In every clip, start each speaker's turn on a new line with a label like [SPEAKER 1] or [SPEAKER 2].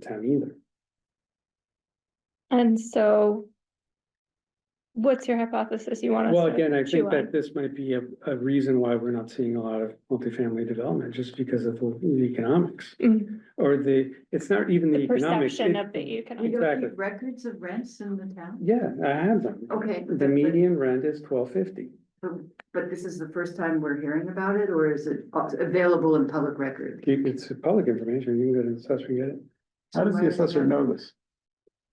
[SPEAKER 1] town either.
[SPEAKER 2] And so. What's your hypothesis you want us
[SPEAKER 1] Well,
[SPEAKER 2] to
[SPEAKER 1] again, I
[SPEAKER 2] chew
[SPEAKER 1] think
[SPEAKER 2] on?
[SPEAKER 1] that this might be a, a reason why we're not seeing a lot of multifamily development, just because of the the economics.
[SPEAKER 2] Mm,
[SPEAKER 1] Or the, it's not even the
[SPEAKER 2] The
[SPEAKER 1] economics.
[SPEAKER 2] perception
[SPEAKER 1] it-
[SPEAKER 2] of the
[SPEAKER 3] We
[SPEAKER 2] economic.
[SPEAKER 3] don't
[SPEAKER 1] Exactly.
[SPEAKER 3] keep records of rents in the town?
[SPEAKER 1] Yeah, I have them.
[SPEAKER 2] Oh,
[SPEAKER 3] Okay.
[SPEAKER 1] The median rent is twelve fifty.
[SPEAKER 3] But- But this is the first time we're hearing about it, or is it available in public record?
[SPEAKER 1] Keep, it's public information. You can go to the assessor and get it.
[SPEAKER 4] How does the assessor know this?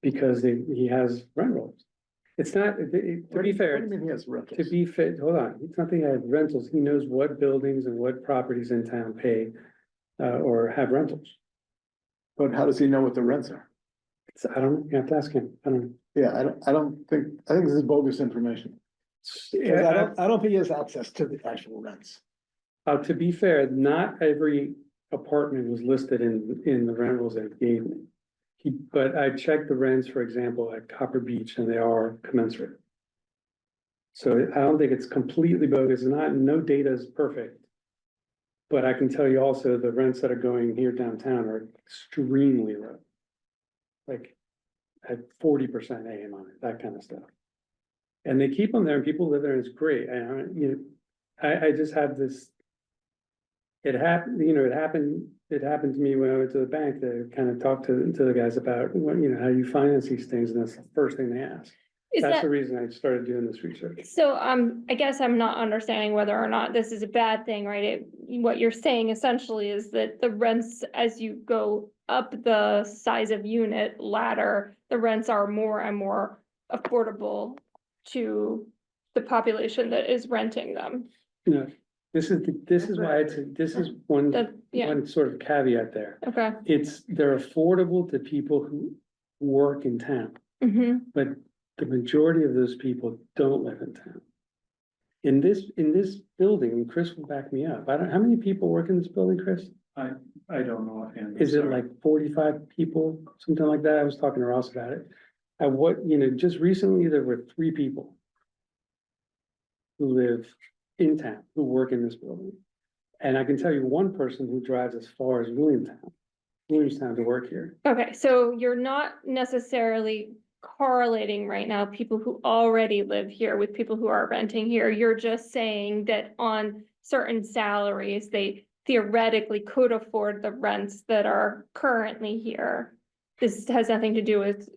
[SPEAKER 1] Because they, he has rent rolls. It's not, it- it- to be
[SPEAKER 4] What
[SPEAKER 1] fair,
[SPEAKER 4] do you mean he has
[SPEAKER 1] to
[SPEAKER 4] rentals?
[SPEAKER 1] be fair, hold on, it's not that he has rentals. He knows what buildings and what properties in town pay uh, or have rentals.
[SPEAKER 4] But how does he know what the rents are?
[SPEAKER 1] It's, I don't, you have to ask him. I don't.
[SPEAKER 4] Yeah, I don't, I don't think, I think this is bogus information. 'Cause I don't, I don't think he has access to the actual rents.
[SPEAKER 1] Uh, to be fair, not every apartment was listed in, in the rent rolls that he gave me. He, but I checked the rents, for example, at Copper Beach and they are commensurate. So I don't think it's completely bogus, not, no data is perfect. But I can tell you also the rents that are going here downtown are extremely low. Like at forty percent AMI, that kind of stuff. And they keep them there and people live there and it's great. And, I- you know, I, I just have this. It happened, you know, it happened, it happened to me when I went to the bank to kind of talk to, to the guys about, what, you know, how you finance these things, and that's the first thing they ask.
[SPEAKER 2] Is
[SPEAKER 1] That's
[SPEAKER 2] that,
[SPEAKER 1] the reason I started doing this research.
[SPEAKER 2] so, um, I guess I'm not understanding whether or not this is a bad thing, right? It- What you're saying essentially is that the rents, as you go up the size of unit ladder, the rents are more and more affordable to the population that is renting them.
[SPEAKER 1] You know, this is, the- this is why it's, this is one,
[SPEAKER 2] That, yeah,
[SPEAKER 1] one sort of caveat there.
[SPEAKER 2] okay.
[SPEAKER 1] It's, they're affordable to people who work in town.
[SPEAKER 2] hmm
[SPEAKER 1] But the majority of those people don't live in town. In this, in this building, and Chris will back me up, I don't, how many people work in this building, Chris?
[SPEAKER 5] I don't know. offhand, I'm
[SPEAKER 1] Is it
[SPEAKER 5] sorry.
[SPEAKER 1] like forty-five people, something like that? I was talking to Ross about it. At what, you know, just recently, there were three people. Who live in town, who work in this building. And I can tell you one person who drives as far as Williamstown, Williamstown to work here.
[SPEAKER 2] Okay, so you're not necessarily correlating right now people who already live here with people who are renting here. You're just saying that on certain salaries, they theoretically could afford the rents that are currently here. This has nothing to do with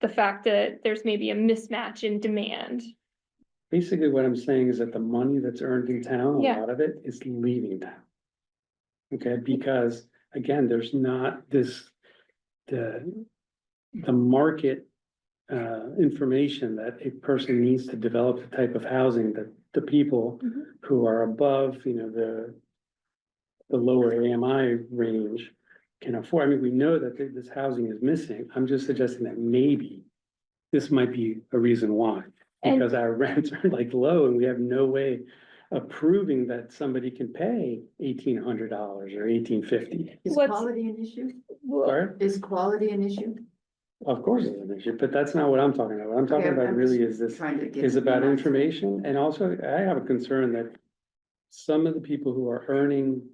[SPEAKER 2] the fact that there's maybe a mismatch in demand.
[SPEAKER 1] Basically, what I'm saying is that the money that's earned in town, a
[SPEAKER 2] Yeah.
[SPEAKER 1] lot of it is leaving town. Okay, because again, there's not this, the, the market. Uh, information that a person needs to develop the type of housing that the people
[SPEAKER 2] Mhm.
[SPEAKER 1] who are above, you know, the. The lower AMI range can afford. I mean, we know that th- this housing is missing. I'm just suggesting that maybe. This might be a reason why.
[SPEAKER 2] And-
[SPEAKER 1] Because our rents are like low and we have no way of proving that somebody can pay eighteen hundred dollars or eighteen fifty.
[SPEAKER 3] Is
[SPEAKER 2] What's-
[SPEAKER 3] quality an issue?
[SPEAKER 1] Sorry,
[SPEAKER 3] Is quality an issue?
[SPEAKER 1] of course it's an issue, but that's not what I'm talking about. What I'm talking
[SPEAKER 3] Okay,
[SPEAKER 1] about
[SPEAKER 3] I'm
[SPEAKER 1] really
[SPEAKER 3] just
[SPEAKER 1] is this,
[SPEAKER 3] Trying to get.
[SPEAKER 1] is about
[SPEAKER 3] my-
[SPEAKER 1] information. And also I have a concern that some of the people who are earning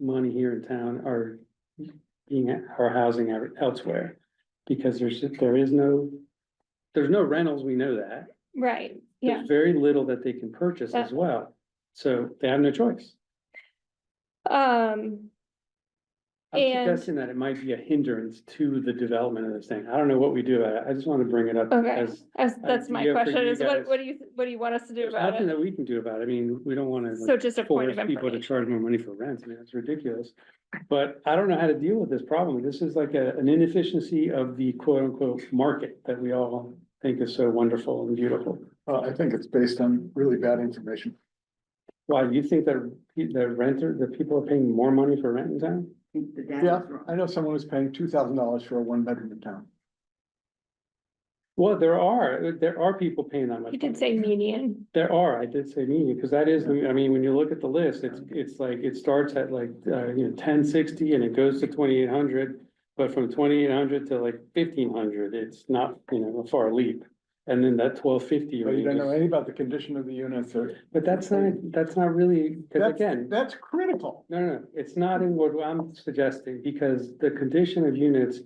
[SPEAKER 1] money here in town are being, are housing out- elsewhere. Because there's, there is no, there's no rentals, we know that.
[SPEAKER 2] Right, yeah.
[SPEAKER 1] There's very little that they can purchase as
[SPEAKER 2] Yeah.
[SPEAKER 1] well, so they have no choice.
[SPEAKER 2] Um,
[SPEAKER 1] I'm
[SPEAKER 2] And-
[SPEAKER 1] suggesting that it might be a hindrance to the development of this thing. I don't know what we do about it. I just want to bring it up
[SPEAKER 2] Okay.
[SPEAKER 1] as.
[SPEAKER 2] as- that's my
[SPEAKER 1] Idea for
[SPEAKER 2] question
[SPEAKER 1] you
[SPEAKER 2] is what,
[SPEAKER 1] guys.
[SPEAKER 2] what do you, what do you want us to do
[SPEAKER 1] There's
[SPEAKER 2] about
[SPEAKER 1] nothing
[SPEAKER 2] it?
[SPEAKER 1] that we can do about it. I mean, we don't want to
[SPEAKER 2] So just a point
[SPEAKER 1] force
[SPEAKER 2] of
[SPEAKER 1] people to
[SPEAKER 2] information.
[SPEAKER 1] charge more money for rent. I mean, that's ridiculous. But I don't know how to deal with this problem. This is like a, an inefficiency of the quote unquote market that we all think is so wonderful and beautiful.
[SPEAKER 4] Uh, I think it's based on really bad information.
[SPEAKER 1] Why, you think that the renter, the people are paying more money for rent in town?
[SPEAKER 3] I think the data's
[SPEAKER 4] Yeah,
[SPEAKER 3] wrong.
[SPEAKER 4] I know someone was paying two thousand dollars for a one bedroom in town.
[SPEAKER 1] Well, there are, there are people paying that much.
[SPEAKER 2] You
[SPEAKER 1] money.
[SPEAKER 2] did say median.
[SPEAKER 1] There are, I did say median, because that is, the- I mean, when you look at the list, it's, it's like, it starts at like, uh, you know, ten sixty and it goes to twenty eight hundred. But from twenty eight hundred to like fifteen hundred, it's not, you know, a far leap. And then that twelve fifty.
[SPEAKER 4] But you don't know anything about the condition of the units or.
[SPEAKER 1] But that's not, that's not really, because
[SPEAKER 4] That's-
[SPEAKER 1] again,
[SPEAKER 4] That's critical.
[SPEAKER 1] no, no, no, it's not in what I'm suggesting, because the condition of units